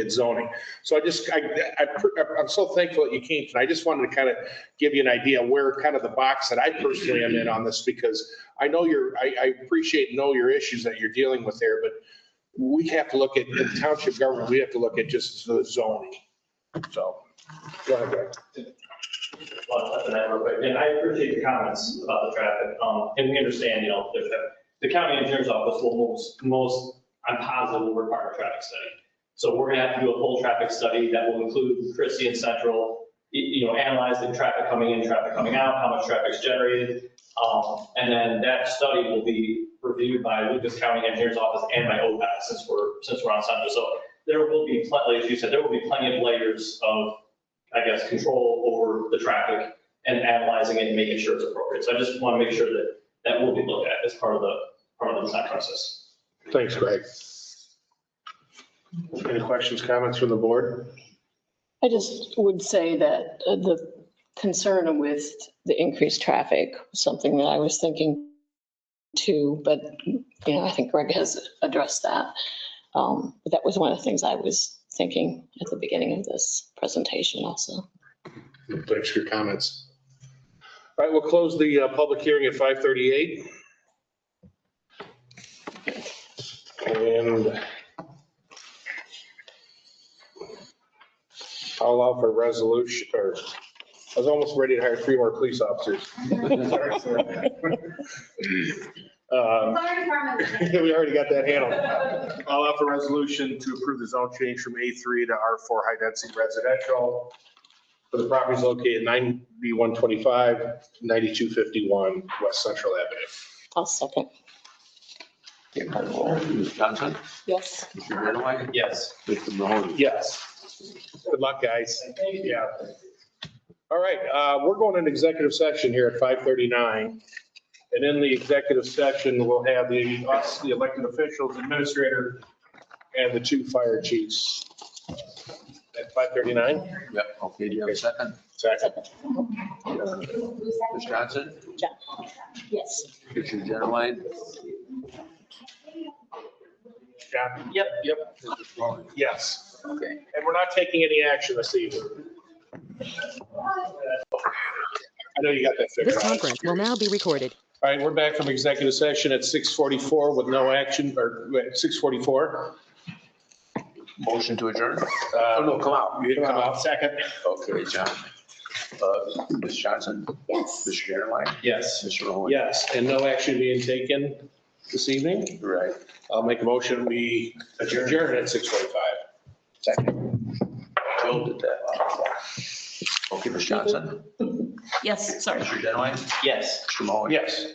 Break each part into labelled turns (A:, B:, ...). A: it's zoning. So I just, I, I- I'm so thankful that you came tonight. I just wanted to kind of give you an idea where kind of the box that I personally am in on this because I know your, I, I appreciate, and know your issues that you're dealing with there, but we have to look at, in the township government, we have to look at just the zoning. So, go ahead, Greg.
B: Well, that's an effort, but, And I appreciate your comments about the traffic. Um, And we understand, you know, there's that- the county engineer's office will most, most, I'm positive will require a traffic study. So we're going to have to do a full traffic study that will include Christie and Central, y- you know, analyzing traffic coming in, traffic coming out, how much traffic's generated. Um, And then that study will be reviewed by Lucas County Engineers Office and by OPAC since we're, since we're on Central. So there will be, plenty, as you said, there will be plenty of layers of I guess, control over the traffic and analyzing it and making sure it's appropriate. So I just want to make sure that that will be looked at as part of the, part of the design process.
A: Thanks, Greg. Any questions, comments from the board?
C: I just would say that uh, the concern with the increased traffic, was something that I was thinking too, but, you know, I think Greg has addressed that. Um, But that was one of the things I was thinking at the beginning of this presentation also.
A: Thanks for your comments. All right, we'll close the uh, public hearing at 5:38. And I'll allow for resolution, or I was almost ready to hire three more police officers. Um,
D: Fire department.
A: We already got that handled. I'll offer resolution to approve the zone change from A3 to R4 high-density residential for the properties located 9B125, 9251 West Central Avenue.
C: I'll second.
E: Ms. Johnson,
C: Yes.
E: Mr. Greenaway,
B: Yes.
E: Mr. Mahoney.
A: Yes. Good luck, guys. Yeah. All right, uh, we're going into executive session here at 5:39. And in the executive session, we'll have the, us, the elected officials, administrator, and the two fire chiefs at 5:39.
E: Yep, okay, do you have a second?
A: Second.
E: Ms. Johnson,
C: Yes.
E: Mr. Greenaway,
A: Yeah. Yep. Yep,
E: Mr. Mahoney.
A: yes.
E: Okay.
A: And we're not taking any action this evening. I know you got that figured
F: This
A: out.
F: conference will now be recorded.
A: All right, we're back from executive session at 6:44 with no action, or wait, 6:44.
E: Motion to adjourn?
A: Uh,
E: Oh, no, come out.
A: You didn't come out second.
E: Okay, John. Uh, Ms. Johnson,
C: Yes.
E: Mr. Greenaway,
A: Yes.
E: Mr. Mahoney.
A: Yes, and no action being taken this evening.
E: Right.
A: I'll make a motion, we adjourn at 6:45.
E: Second. Joe did that. Okay, Ms. Johnson,
C: Yes, sorry.
E: Mr. Greenaway,
B: Yes.
E: Mr. Mahoney.
A: Yes.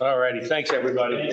A: All righty, thanks, everybody.